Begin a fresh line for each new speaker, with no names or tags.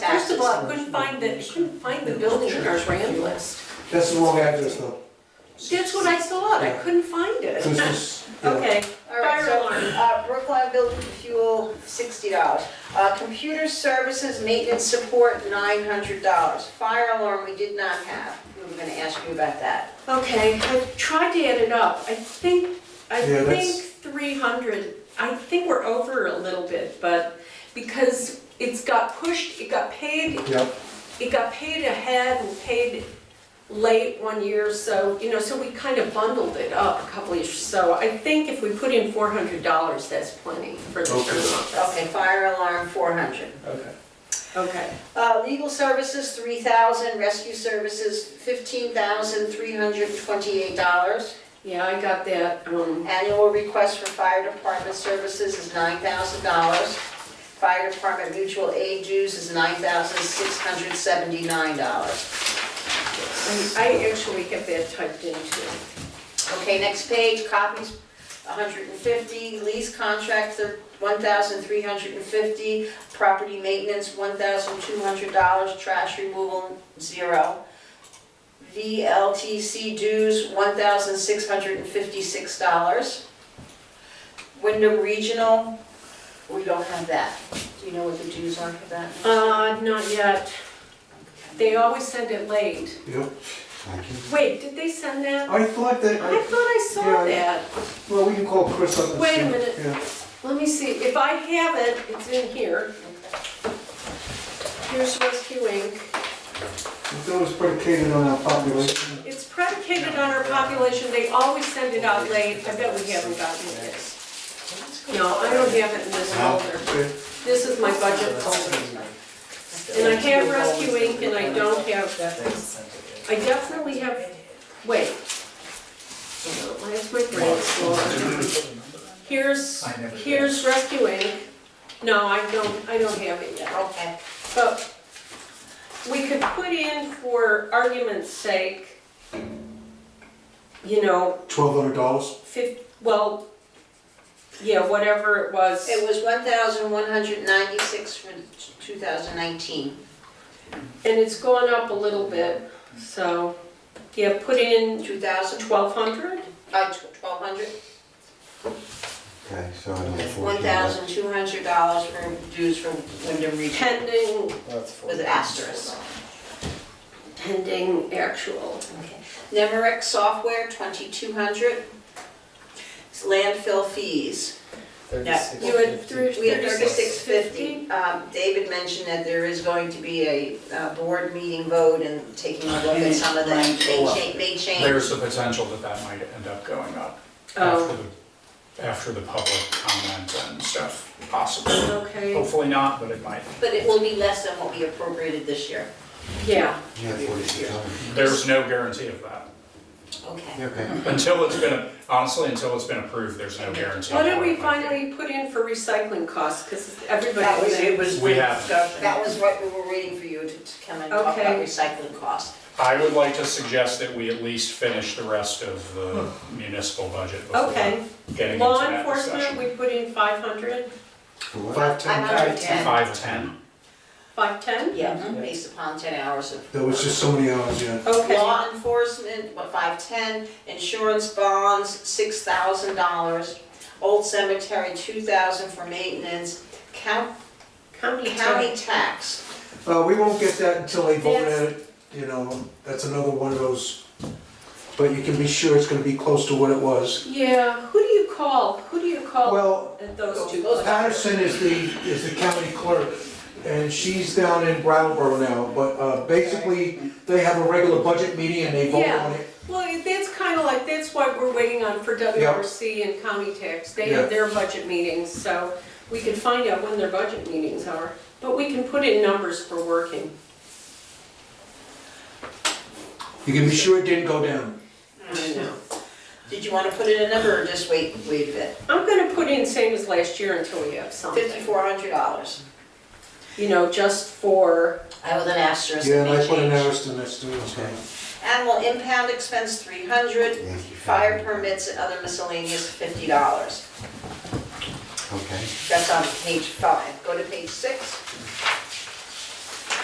Well, I couldn't find the, I couldn't find the building in our brand list.
That's the wrong address though.
That's what I thought, I couldn't find
This is-
it.
yeah.
Okay,
All right,
Fire
so,
alarm.
uh, Brookline Building Fuel, sixty dollars. Uh, computer services, maintenance support, nine hundred dollars. Fire alarm, we did not have. We were gonna ask you about that.
okay, I tried to add it up, I think, I
Yeah, that's-
think three hundred, I think we're over a little bit, but because it's got pushed, it got paid,
Yep,
it got paid ahead and paid late one year, so, you know, so we kind of bundled it up a couple of years. So I think if we put in four hundred dollars, that's plenty for the
Okay.
sheriff's office.
Okay, fire alarm, four hundred.
okay.
Okay.
Uh, legal services, three thousand. Rescue services, fifteen thousand, three hundred twenty-eight dollars.
Yeah, I got that, um,
Annual request for fire department services is nine thousand dollars. Fire department mutual aid dues is nine thousand six hundred seventy-nine dollars.
I I actually have that typed in too.
Okay, next page, copies, hundred and fifty, lease contract, one thousand three hundred and fifty, property maintenance, one thousand two hundred dollars, trash removal, zero. VLTC dues, one thousand six hundred and fifty-six dollars. Wyndham Regional, we don't have that. Do you know what the dues are for that?
Uh, not yet. They always send it late.
Yep.
Wait, did they send that?
I thought that,
I
I-
thought I saw
Yeah,
that.
well, we can call Chris up and see.
Wait a minute.
Yeah.
Let me see, if I have it, it's in here. Here's Rescue Inc.
That was predicated on our population.
It's predicated on our population, they always send it out late, I bet we haven't gotten this. No, I don't have it in this folder,
Okay.
this is my budget folder. And I have Rescue Inc. and I don't have, I definitely have, wait. Hold on, Where's my brain store? Here's, here's Rescue Inc. No, I don't, I don't have it yet.
Okay.
But we could put in for argument's sake, you know,
Twelve hundred dollars?
fif, well, yeah, whatever it was.
It was one thousand one hundred ninety-six for two thousand nineteen.
And it's gone up a little bit, so, yeah, put in
Two thousand,
twelve hundred?
uh, twelve hundred?
Okay, so it'll be
One
fourteen dollars.
thousand two hundred dollars for dues for Wyndham Regional
Pending,
with asterisk.
pending actual.
Nemrick software, twenty-two hundred. Landfill fees,
You had three.
we have thirty-six fifty. Um, David mentioned that there is going to be a, uh, board meeting vote and taking a look at some of that. They cha- they change.
There's the potential that that might end up going up after
Oh,
the, after the public comment and stuff, possibly.
Oh.
okay,
Hopefully not, but it might.
But it will be less than what we appropriated this year.
yeah,
You have forty-six dollars.
There's no guarantee of that.
Okay.
Okay.
Until it's been, honestly, until it's been approved, there's no guarantee.
what
of
did
what
we
it might be.
finally put in for recycling costs, cause everybody.
That was, it was.
We have-
That was what we were waiting for you to to come and talk about
Okay.
recycling costs.
I would like to suggest that we at least finish the rest of the municipal budget before
Hmm. Okay.
getting into
Law
that
enforcement,
discussion.
we put in five hundred,
For what?
Five ten?
I'm under ten.
Five, ten.
five ten?
Yeah, based upon ten hours of.
That was just so many hours, yeah.
Okay,
Law enforcement, what, five ten, insurance bonds, six thousand dollars, old cemetery, two thousand for maintenance, county,
county
county
county.
tax.
Uh, we won't get that until they vote at it, you know, that's another one of those. But you can be sure it's gonna be close to what it was.
Yeah, who do you call, who do you call
Well,
at those two?
those-
Patterson is the, is the county clerk, and she's down in Brattleboro now, but, uh, basically, they have a regular budget meeting and they vote
Yeah.
on it.
Well, that's kind of like, that's what we're waiting on for WRC and county tax. They
Yeah.
have their budget meetings, so we can find out when their budget meetings are. But we can put in numbers for working.
You can be sure it didn't go down.
I know.
Did you wanna put in a number or just wait, wait a bit?
I'm gonna put in same as last year until we have something,
Fifty-four hundred dollars.
you know, just for,
I with an asterisk,
Yeah,
it
and
may
I put an
change.
asterisk next to it, so.
Okay.
Animal impound expense, three hundred,
Thank you.
fire permits and other miscellaneous, fifty dollars.
Okay.
That's on page five. Go to page six.